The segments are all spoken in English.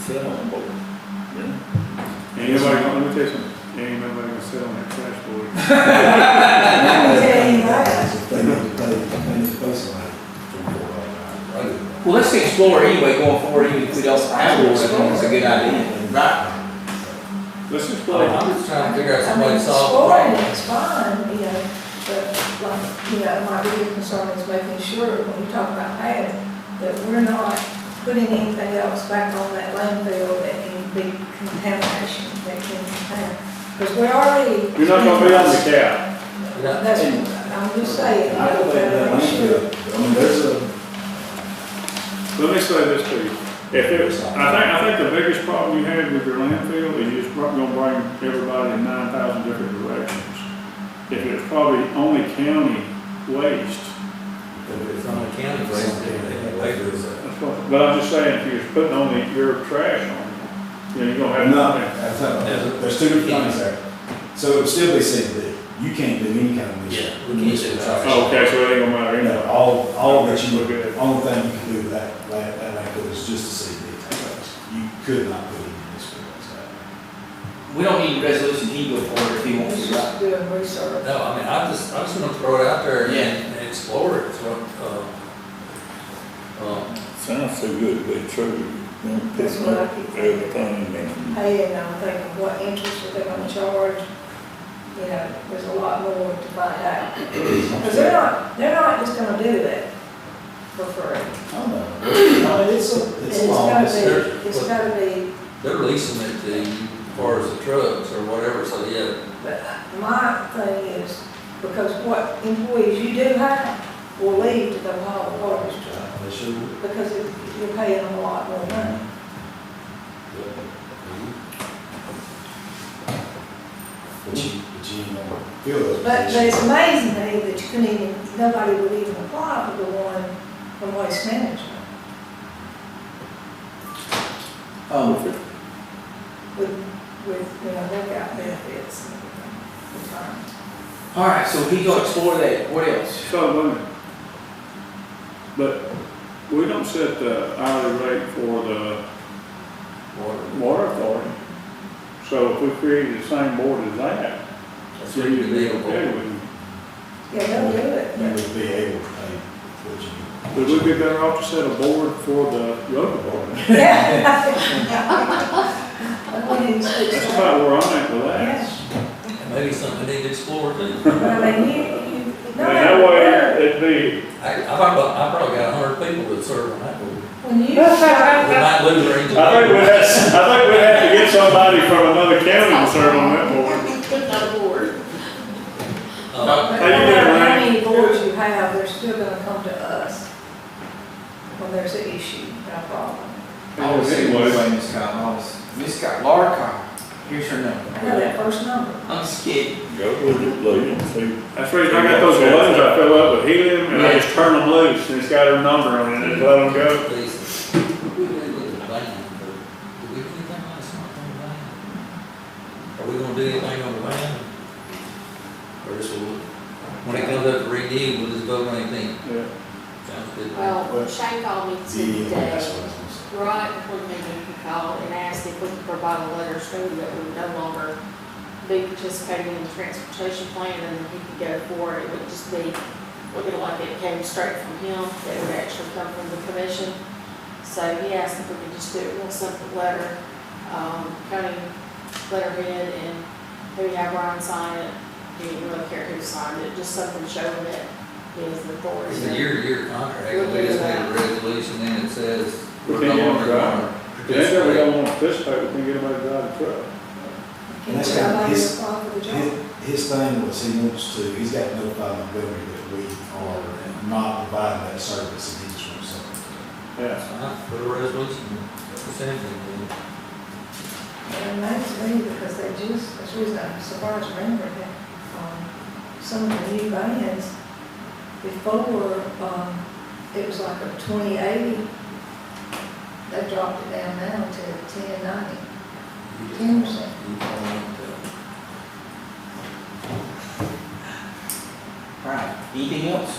sit on a board, you know? Ain't nobody, gonna- let me tell you something, ain't nobody gonna sit on that trash board. Well, let's explore anyway going forward, even if we don't have one, I think it's a good idea, right? Let's just play. I'm just trying to figure I out some way mean, to solve the scoring problem. is fine, you know, but like, you know, my bigger concern is making sure when we talk about pad, that we're not putting anything else back on that landfill that can be contamination that can happen. Because we're already. You're not gonna be on the cap. That's, I'm just saying, uh, I you know, don't think better that make sure. landfill, I mean, there's a, Let me say this to you, if it was, I think, I think the biggest problem you have with your landfill is you're just probably gonna bring everybody in nine thousand different directions. If it's probably only county waste, It's on the county, but it's the labor's. that's what- but I'm just saying, if you're putting only your trash on, you know, you're gonna have. no, that's not, there's two different things there. So it would still be said that you can't do any kind of leaching. We can use it. Oh, Okay, so it ain't gonna matter, You you know. know, all, all that you, Look at it. only thing you can do with that, that, that landfill is just to see the tax. You could not put any of this one We don't need a resolution he go forward if he wants It's to, right? just doing research. No, I mean, I'm just, I'm just gonna throw it out there and- Yeah. and explore it, throw, uh, um, Sounds so good, to be true. You know, That's picking what I up keep thinking. Everything and Hey, and I'm thinking, what interest are they gonna charge? You know, there's a lot more to find out. Because they're not, they're not just gonna do that for free. I don't know. I mean, it's a, it's And long, it's, it's- gotta be, it's gotta be, they're leasing it to you as far as the trucks or whatever, so yeah. but my thing is, because what employees you do have will leave to go haul the garbage truck, they should, because if you're paying them a lot more money. but you, but you don't feel those. But, but positions. it's amazing to me that you couldn't even, nobody would even apply for the one from waste management. Um, with, with, you know, workout benefits and everything. all right, so he go explore that, what else? So, wait a minute. But we don't set the hourly rate for the Water. water authority. So if we created the same board as that, That's so you'd be okay unbelievable. with it. Yeah, they'll do it, You but would be able to pay what you. Would we be better off to set a board for the road department? yeah. I mean, it's- it's- That's about where I'm at with that. Maybe something they need to explore too. I mean, you, you, I mean, no that matter way where, it'd be, I, I probably, I probably got a hundred people that serve on that board. when you start, We might lose our engineer. I think we'd have, I think we'd have to get somebody from another county to serve on that board. Uh, but How no you doing, matter how Ryan? many boards you have, they're still gonna come to us when there's an issue, no problem. I was saying, Anyway. anyway, Miss Scott, I was, Miss Scott, Laura Carr, here's her number. I know that first number. I'm scared. go with it, Lee, and see. That's the reason I got those balloons I fill up with helium and I Yeah. just turn them loose and it's got her number on it and let them go. Please. We really look at the van, but do we do anything on the smartphone van? Are we gonna do anything on the van? Or just, we'll- when it comes up to renew, we'll just vote on anything? Yeah. Sounds good. Well, Shane called me The, that's today, what I was gonna say. right before the meeting, he called and asked if we could provide a letter stating that we would no longer be participating in the transportation plan and that he could go for it. It would just be, looking like it came straight from him, that it would actually come from the commission. So he asked if we could just do it real simple letter, um, county letterhead and maybe have Ryan sign it. He didn't really care who signed it, just something showing that he has the authority. It's a year-to-year contract, we just made a resolution and it says we're no longer Then gonna if we participate. don't want to participate, we can get them to drive the truck. Can you That's tell got by your his- phone for the job? His, his thing was he wants to, he's got notified the government that we are not providing that service and he just wants something. Yeah. Uh, Put a resolution, it's anything, It reminds me, because they just, that's the reason I'm surprised to remember that, um, some of the new bands, before, um, it was like a twenty eighty, they dropped it down now to ten ninety. but- Ten percent. You don't want to. All right, anything else?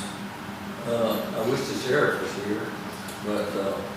Uh, I wish the sheriff was here, but, uh,